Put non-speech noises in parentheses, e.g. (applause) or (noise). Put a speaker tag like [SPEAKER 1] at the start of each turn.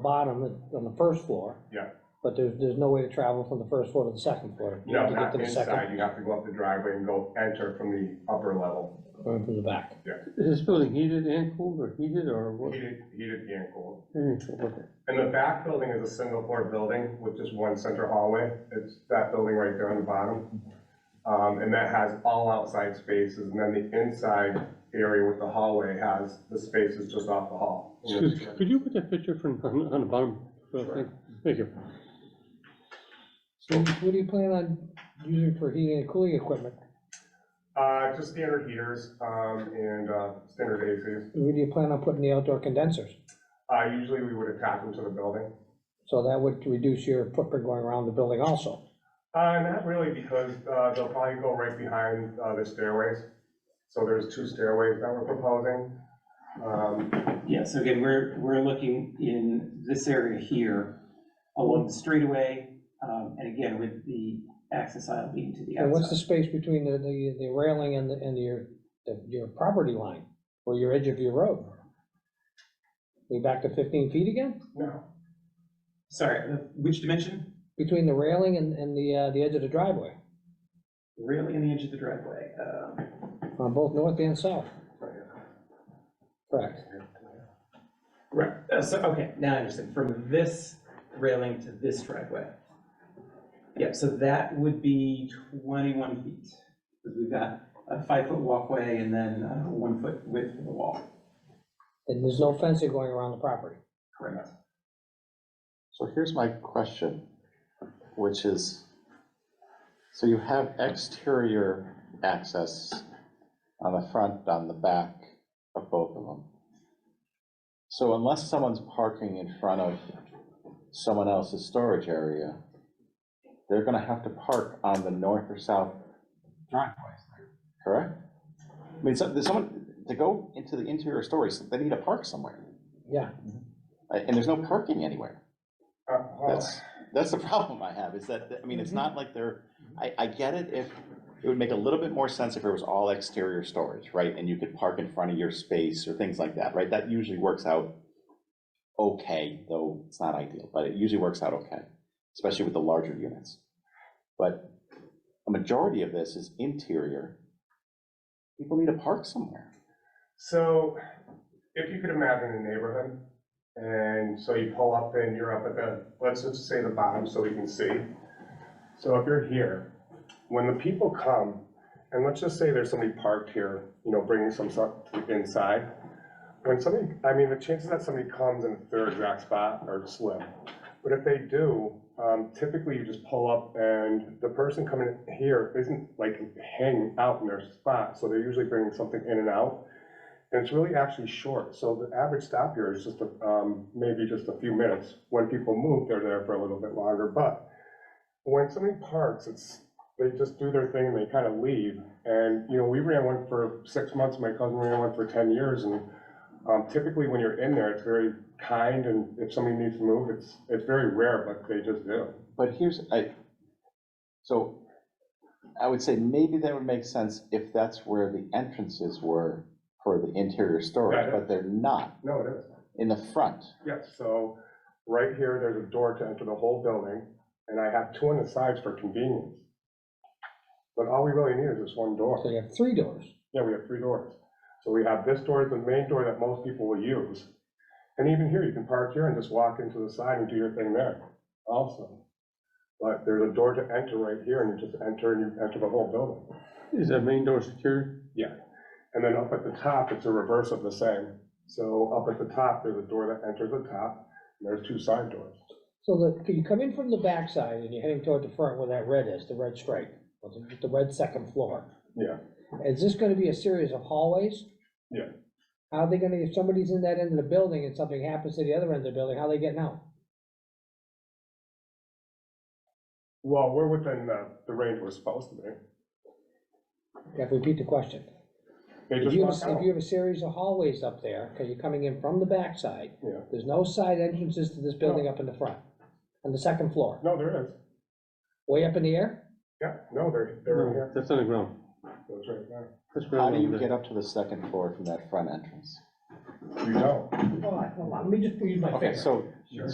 [SPEAKER 1] bottom, on the first floor.
[SPEAKER 2] Yeah.
[SPEAKER 1] But there's, there's no way to travel from the first floor to the second floor. You have to
[SPEAKER 2] No,
[SPEAKER 1] get
[SPEAKER 2] not
[SPEAKER 1] to the second
[SPEAKER 2] inside, you have to go up the driveway and go enter from the upper level,
[SPEAKER 1] Or from the back.
[SPEAKER 3] Is this building heated and cooled or heated or what?
[SPEAKER 2] heated, heated and cooled.
[SPEAKER 3] Heated,
[SPEAKER 1] Mm,
[SPEAKER 3] okay.
[SPEAKER 2] And the back building is a single floor building with just one center hallway. It's that building right there on the bottom. Um, and that has all outside spaces, and then the inside area with the hallway has the spaces just off
[SPEAKER 1] (laughs)
[SPEAKER 2] the hall.
[SPEAKER 3] Excuse, could you put that picture from, on, on the bottom? Well, thank- Thank you.
[SPEAKER 1] So what do you plan on using for heating and cooling equipment?
[SPEAKER 2] Uh, just standard heaters, um, and, uh, standard ACs.
[SPEAKER 1] Where do you plan on putting the outdoor condensers?
[SPEAKER 2] Uh, usually we would attach them to the building.
[SPEAKER 1] So that would reduce your footprint going around the building also.
[SPEAKER 2] Uh, not really, because, uh, they'll probably go right behind, uh, the stairways. So there's two stairways that we're proposing. Um,
[SPEAKER 4] Yeah, so again, we're, we're looking in this area here along the straightaway, um, and again, with the access aisle being to the
[SPEAKER 1] And what's the
[SPEAKER 4] outside.
[SPEAKER 1] space between the, the, the railing and the, and your, the- your property line, or your edge of your road? We back to fifteen feet again?
[SPEAKER 2] no,
[SPEAKER 4] Sorry, uh, which dimension?
[SPEAKER 1] Between the railing and, and the, uh, the edge of the driveway,
[SPEAKER 4] Really in the edge of the driveway. um,
[SPEAKER 1] on both north and south,
[SPEAKER 2] right.
[SPEAKER 1] correct?
[SPEAKER 4] Right, uh, so, okay, now I understand, from this railing to this driveway. Yep, so that would be twenty-one feet, because we've got a five-foot walkway and then uh one-foot width for the wall,
[SPEAKER 1] And there's no fencing going around the property.
[SPEAKER 4] correct?
[SPEAKER 5] So here's my question, which is, so you have exterior access on the front, on the back of both of them. So unless someone's parking in front of someone else's storage area, they're gonna have to park on the north or south driveways there, correct? I mean, so, there's someone, to go into the interior storage, they need to park somewhere,
[SPEAKER 1] Yeah,
[SPEAKER 5] uh, and there's no parking anywhere.
[SPEAKER 2] Uh, well,
[SPEAKER 5] That's, that's the (laughs) problem I have, is that, I mean, it's not like they're, I, I get it if, it would make a little bit more sense if it was all exterior storage, right? And you could park in front of your space or things like that, right? That usually works out okay, though it's not ideal, but it usually works out okay, especially with the larger units. But a majority of this is interior. People need to park somewhere.
[SPEAKER 2] So if you could imagine a neighborhood, and so you pull up and you're up at the, let's just say the bottom so we can see. So if you're here, when the people come, and let's just say there's somebody parked here, you know, bringing some stuff inside. When somebody, I mean, the chances that somebody comes in their exact spot are slim. But if they do, um, typically you just pull up and the person coming here isn't like hanging out in their spot, so they're usually bringing something in and out. And it's really actually short, so the average stop here is just, a- um, maybe just a few minutes. When people move, they're there for a little bit longer, but when somebody parks, it's, they just do their thing, and they kind of leave. And, you know, we ran one for six months, my cousin ran one for ten years, and, um, typically when you're in there, it's very kind, and if somebody needs to move, it's, it's very rare, but they just do.
[SPEAKER 5] But here's, I, so I would say maybe that would make sense if that's where the entrances were for the interior
[SPEAKER 2] Yeah, yeah.
[SPEAKER 5] storage, but they're not
[SPEAKER 2] No, it is.
[SPEAKER 5] in the front.
[SPEAKER 2] Yes, so right here, there's a door to enter the whole building, and I have two on the sides for convenience. But all we really need is this one
[SPEAKER 1] so
[SPEAKER 2] door.
[SPEAKER 1] you have three doors.
[SPEAKER 2] Yeah, we have three doors. So we have this door, is the main door that most people will use. And even here, you can park here and just walk into the side and do your thing there also. But there's a door to enter right here, and you just enter and you enter the whole building.
[SPEAKER 3] Is that main door secured?
[SPEAKER 2] And then up at the top, it's a reverse of the same. So up at the top, there's a door that enters the top, and there's two side doors.
[SPEAKER 1] So that, you come in from the backside and you're heading toward the front where that red is, the red stripe, or the, the red second floor.
[SPEAKER 2] Yeah.
[SPEAKER 1] Is this gonna be a series of hallways?
[SPEAKER 2] Yeah.
[SPEAKER 1] How are they gonna, if somebody's in that end of the building and something happens to the other end of the building, how are they getting out?
[SPEAKER 2] Well, we're within the, the range we're supposed to be.
[SPEAKER 1] You have to repeat the question.
[SPEAKER 2] They
[SPEAKER 1] If
[SPEAKER 2] just
[SPEAKER 1] you
[SPEAKER 2] walk
[SPEAKER 1] have,
[SPEAKER 2] out.
[SPEAKER 1] if you have a series of hallways up there, because you're coming in from the backside,
[SPEAKER 2] Yeah.
[SPEAKER 1] there's no side entrances to this building up in the front, on the second floor,
[SPEAKER 2] No, there is.
[SPEAKER 1] way up in the air?
[SPEAKER 2] Yeah, no, they're, they're in
[SPEAKER 3] No,
[SPEAKER 2] here.
[SPEAKER 3] that's on the ground.
[SPEAKER 2] Those right there.
[SPEAKER 3] That's
[SPEAKER 5] How
[SPEAKER 3] ground
[SPEAKER 5] do
[SPEAKER 3] over
[SPEAKER 5] you
[SPEAKER 3] there.
[SPEAKER 5] get up to the second floor from that front entrance?
[SPEAKER 2] You know.
[SPEAKER 1] Hold on, hold on, let me just use my
[SPEAKER 5] Okay, so, so